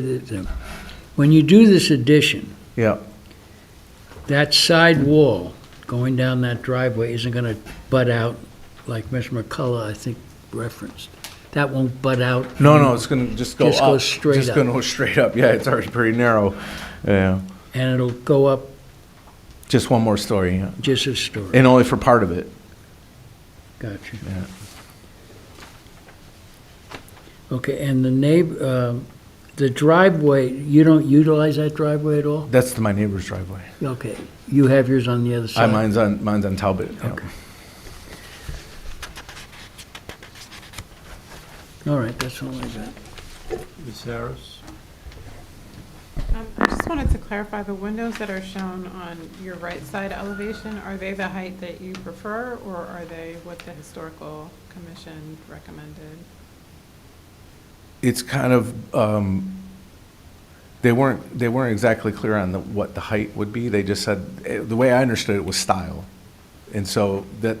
that, um, When you do this addition, Yeah, that side wall going down that driveway isn't gonna butt out like Mr. McCullough, I think, referenced. That won't butt out. no, no, it's gonna just go up. Just go straight Just up. gonna go straight up, yeah, it's already pretty narrow, yeah, And it'll go up just one more story, yeah. just a story. and only for part of it. Gotcha. Yeah. Okay, and the neighbor, um, the driveway, you don't utilize that driveway at all? That's my neighbor's driveway. Okay, you have yours on the other I, side. mine's on, mine's on Talbot, yeah. Okay. All right, that's all I got. Ms. Harris? Um, I just wanted to clarify, the windows that are shown on your right side elevation, are they the height that you prefer, or are they what the historical commission recommended? It's kind of, um, they weren't, they weren't exactly clear on the, what the height would be, they just said, eh, the way I understood it was style. And so that,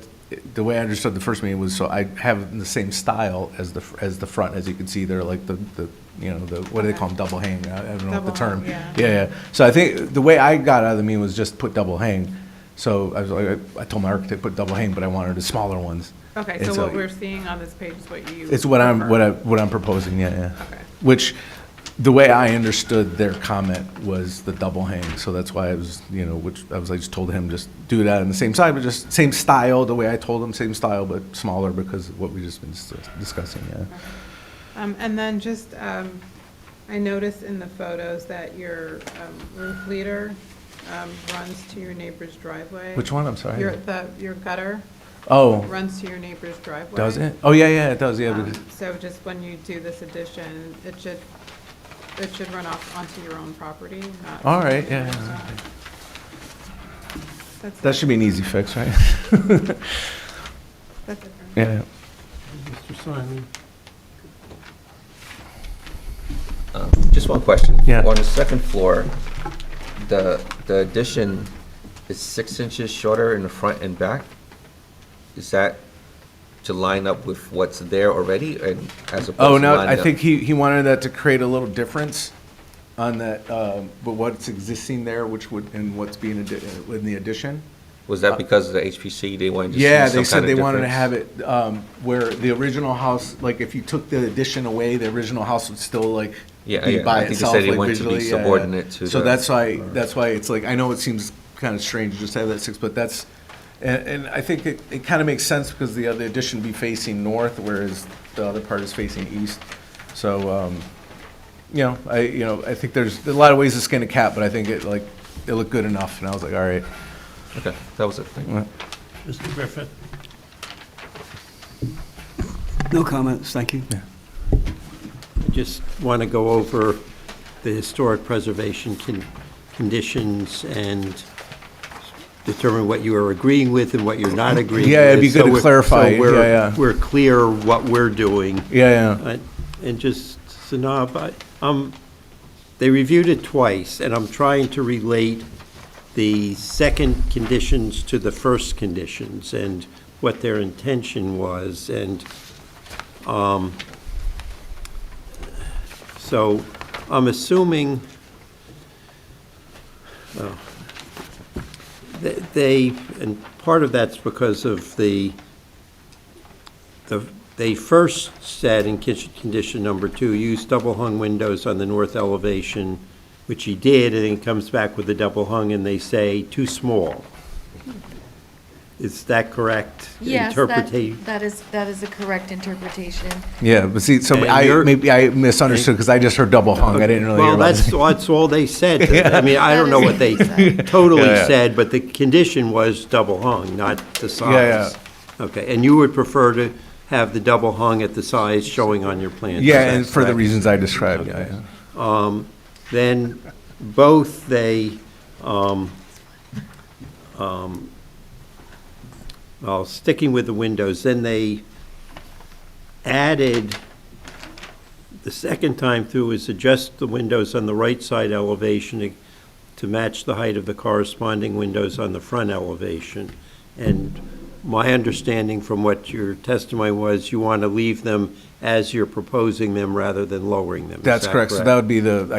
the way I understood the first meeting was, so I have the same style as the, fr- as the front, as you can see there, like the, the, you know, the, what do they call them, double hang, I I don't know what the Double hung, term. yeah. Yeah, yeah. so I think, the way I got out of the meeting was just put double hang. So I was like, I told my architect, put double hang, but I wanted the smaller ones. Okay, And so what we're seeing on this page is what you. It's what I'm, prefer. what I, what I'm proposing, yeah, yeah. Okay. Which, the way I understood their comment was the double hang, so that's why I was, you know, which, I was, I just told him, just do that on the same side, but just same style, the way I told him, same style, but smaller because of what we just been s- discussing, yeah. Um, And then just, um, I noticed in the photos that your um, roof leader um, runs to your neighbor's driveway. Which one, I'm Your, sorry? the, your gutter Oh, runs to your neighbor's driveway. does it? Oh, yeah, yeah, it does, yeah, Um, because, So just when you do this addition, it should, it should run off onto your own property, not. all right, yeah, yeah. okay. That's, That it. should be an easy fix, right? that's it. for me. Yeah. Mr. Simon? Um, Just one question. Yeah. On the second floor, the, the addition is six inches shorter in the front and back? Is that to line up with what's there already and as opposed to Oh, no, line I up- think he, he wanted that to create a little difference on that, um, but what's existing there, which would, and what's being, addi- uh, in the addition? Was that because of the HPC, they wanted to see some kind Yeah, of they difference? said they wanted to have it um, where the original house, like if you took the addition away, the original house would still like Yeah, be yeah, by I think they itself, said they like wanted to be visually. yeah, yeah. subordinate to So the- that's why, that's why it's like, I know it seems kind of strange just to have that six, but that's, and, and I think it, it kind of makes sense because the other addition would be facing north, whereas the other part is facing east. So, um, you know, I, you know, I think there's a lot of ways to skin a cat, but I think it like, it looked good enough, and I was like, all right. Okay, that was it, thank you. Mr. Griffin? No comments, thank you. I just want to go over the historic preservation con- conditions and determine what you are agreeing with and what you're not agreeing with. Yeah, it'd be good So to we're- so clarify. we're- Yeah, yeah. We're clear what we're doing. Yeah, yeah. I- And just, Sanab, I- um, they reviewed it twice, and I'm trying to relate the second conditions to the first conditions and what their intention was, and, um, so I'm assuming oh, th- they, and part of that's because of the, the, they first said in kitchen condition number two, use double hung windows on the north elevation, which he did, and he comes back with the double hung and they say too small. Is that correct? Yes, that, interpreta- that is, that is a correct interpretation. Yeah, but see, so And I, you're- maybe I misunderstood because I just heard double hung. I didn't really hear Well, about that's, it. that's all they said. I mean, I That don't know is what they they said. totally Yeah, yeah. said, but the condition was double hung, not the Yeah, size. Okay, and you would prefer to have the double hung at the size showing on your plan? is Yeah, that and for the correct? reasons I described, yeah, yeah. Then both they, um, um, well, sticking with the windows, then they added, the second time through is adjust the windows on the right side elevation to- to match the height of the corresponding windows on the front elevation. And my understanding from what your testimony was, you want to leave them as you're proposing them rather than lowering them. Is That's that correct. So that would be the, I